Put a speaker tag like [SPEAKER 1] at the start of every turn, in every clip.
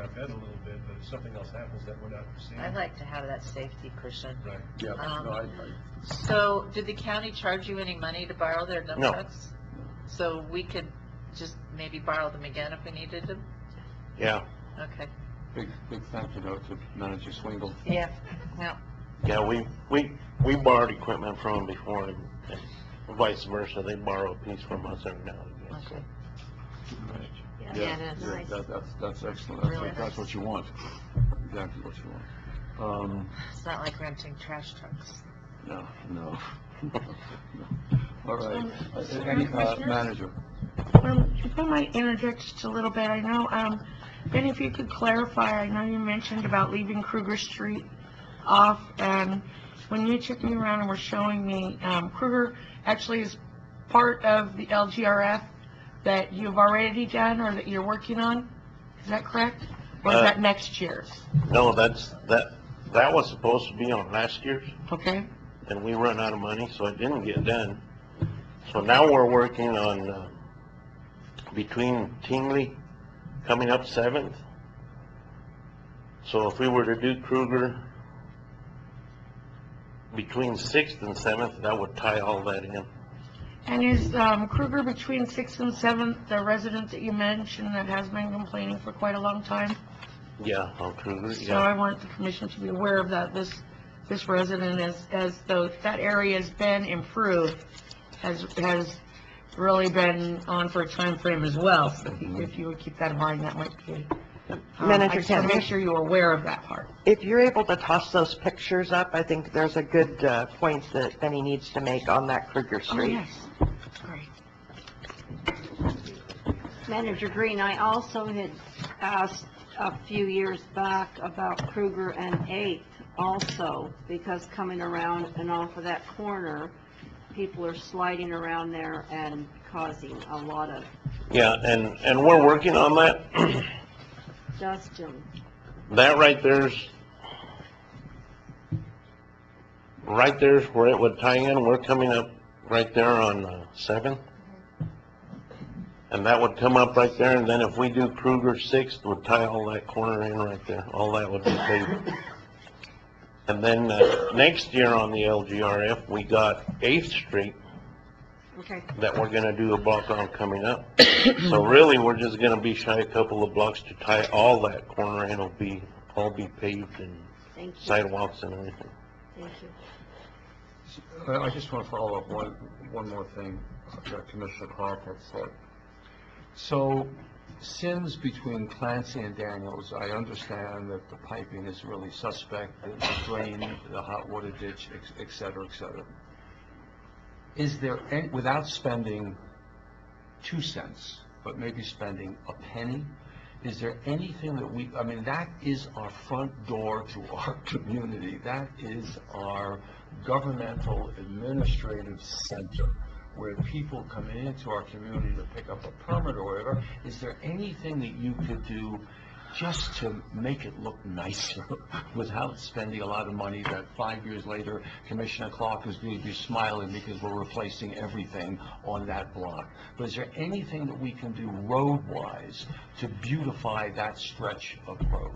[SPEAKER 1] our bed a little bit, but if something else happens that we're not seeing.
[SPEAKER 2] I'd like to have that safety cushion.
[SPEAKER 1] Right.
[SPEAKER 3] Yeah,
[SPEAKER 2] Um,
[SPEAKER 3] no, I, I,
[SPEAKER 2] So, did the county charge you any money to borrow their dump
[SPEAKER 4] No.
[SPEAKER 2] trucks? So we could just maybe borrow them again if we needed them?
[SPEAKER 4] Yeah,
[SPEAKER 2] Okay.
[SPEAKER 3] big, big thank you though to Manager Swingle.
[SPEAKER 2] Yeah, no.
[SPEAKER 4] yeah, we, we, we borrowed equipment from them before and and vice versa. They borrow a piece from us every now and again, so.
[SPEAKER 2] Okay.
[SPEAKER 5] Yeah.
[SPEAKER 2] Yeah, it is.
[SPEAKER 3] Yeah, that- That's, that's excellent. That's,
[SPEAKER 2] Really
[SPEAKER 3] what- that's
[SPEAKER 2] nice.
[SPEAKER 3] what you want. Exactly what you want. Um,
[SPEAKER 2] It's not like renting trash trucks.
[SPEAKER 3] no, no. All right.
[SPEAKER 5] Um,
[SPEAKER 3] Uh,
[SPEAKER 5] so
[SPEAKER 3] Any,
[SPEAKER 5] my
[SPEAKER 3] uh,
[SPEAKER 5] question is-
[SPEAKER 3] manager?
[SPEAKER 5] Um, if I might interject just a little bit, I know, um, Ben, if you could clarify, I know you mentioned about leaving Kruger Street off, and when you took me around and were showing me, um, Kruger actually is part of the LGRF that you've already done or that you're working on, is that correct? Or is
[SPEAKER 4] Uh,
[SPEAKER 5] that next year's,
[SPEAKER 4] No, that's, that, that was supposed to be on last year's
[SPEAKER 5] okay?
[SPEAKER 4] and we run out of money, so it didn't get done. So now we're working on, uh, between Tingley coming up Seventh. So if we were to do Kruger between Sixth and Seventh, that would tie all that in.
[SPEAKER 5] And is, um, Kruger between Sixth and Seventh, the resident that you mentioned that has been complaining for quite a long time?
[SPEAKER 4] Yeah, on Kruger,
[SPEAKER 5] So I
[SPEAKER 4] yeah.
[SPEAKER 5] want the commission to be aware of that, this, this resident is, as though that area has been improved, has, has really been on for a time frame as well, so if you would keep that in mind, that might be. um, I
[SPEAKER 6] Manager
[SPEAKER 5] just want to make
[SPEAKER 6] Kent.
[SPEAKER 5] sure you're aware of that part.
[SPEAKER 6] If you're able to toss those pictures up, I think there's a good uh, point that Benny needs to make on that Kruger Street.
[SPEAKER 5] Great.
[SPEAKER 7] Manager Green, I also had asked a few years back about Kruger and Eighth also, because coming around and off of that corner, people are sliding around there and causing a lot of
[SPEAKER 4] Yeah, and, and we're working on that.
[SPEAKER 7] dust and,
[SPEAKER 4] That right there's, right there's where it would tie in, we're coming up right there on uh, Seventh. And that would come up right there, and then if we do Kruger Sixth, would tie all that corner in right there, all that would be paved. And then, uh, next year on the LGRF, we got Eighth Street
[SPEAKER 7] okay,
[SPEAKER 4] that we're gonna do a block on coming up. So really, we're just gonna be shy a couple of blocks to tie all that corner, and it'll be, all be paved and
[SPEAKER 7] thank you.
[SPEAKER 4] sidewalks and everything.
[SPEAKER 7] Thank you.
[SPEAKER 3] I Uh, I just want to follow up one, one more thing that Commissioner Clark had said. So, since between Clancy and Daniels, I understand that the piping is really suspect, the- the drain, the hot water ditch, ex- et cetera, et cetera. Is there, an- without spending two cents, but maybe spending a penny, is there anything that we, I mean, that is our front door to our community. That is our governmental administrative center, where people come into our community to pick up a permit or whatever. Is there anything that you could do just to make it look nicer without spending a lot of money that five years later, Commissioner Clark is going to be smiling because we're replacing everything on that block? But is there anything that we can do road-wise to beautify that stretch of road?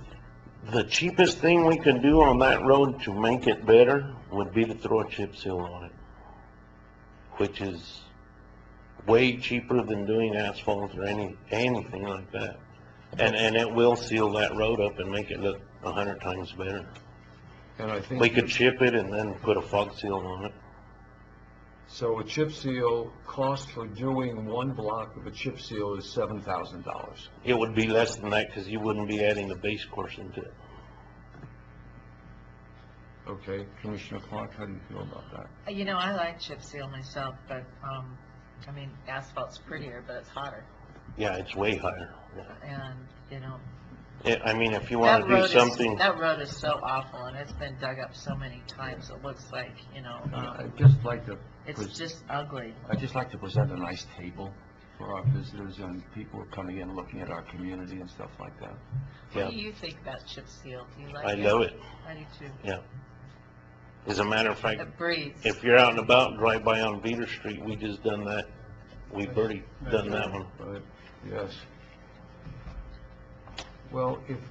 [SPEAKER 4] The cheapest thing we can do on that road to make it better would be to throw a chip seal on it, which is way cheaper than doing asphalt or any, anything like that. And, and it will seal that road up and make it look a hundred times better.
[SPEAKER 3] And I think.
[SPEAKER 4] We could chip it and then put a fog seal on it.
[SPEAKER 3] So a chip seal, cost for doing one block of a chip seal is seven thousand dollars.
[SPEAKER 4] It would be less than that because you wouldn't be adding the base course into it.
[SPEAKER 3] Okay, Commissioner Clark, how do you feel about that?
[SPEAKER 2] Uh, You know, I like chip seal myself, but, um, I mean, asphalt's prettier, but it's hotter,
[SPEAKER 4] Yeah, it's way higher.
[SPEAKER 2] and, you know.
[SPEAKER 4] Yeah, I mean, if you
[SPEAKER 2] that
[SPEAKER 4] want to
[SPEAKER 2] road
[SPEAKER 4] do
[SPEAKER 2] is-
[SPEAKER 4] something,
[SPEAKER 2] That road is so awful, and it's been dug up so many times, it looks like, you know, um,
[SPEAKER 3] I'd Uh, just like to,
[SPEAKER 2] it's just ugly.
[SPEAKER 3] I'd just like to present a nice table for our visitors and people who are coming in, looking at our community and stuff like that.
[SPEAKER 4] Yeah.
[SPEAKER 2] What do you think about chip seal? Do you like it?
[SPEAKER 4] I love it.
[SPEAKER 2] I do too.
[SPEAKER 4] As a matter of fact,
[SPEAKER 2] It breathes.
[SPEAKER 4] if you're out and about, drive by on Beater Street, we just done that. We've already done that one.
[SPEAKER 3] But, yes. Well, if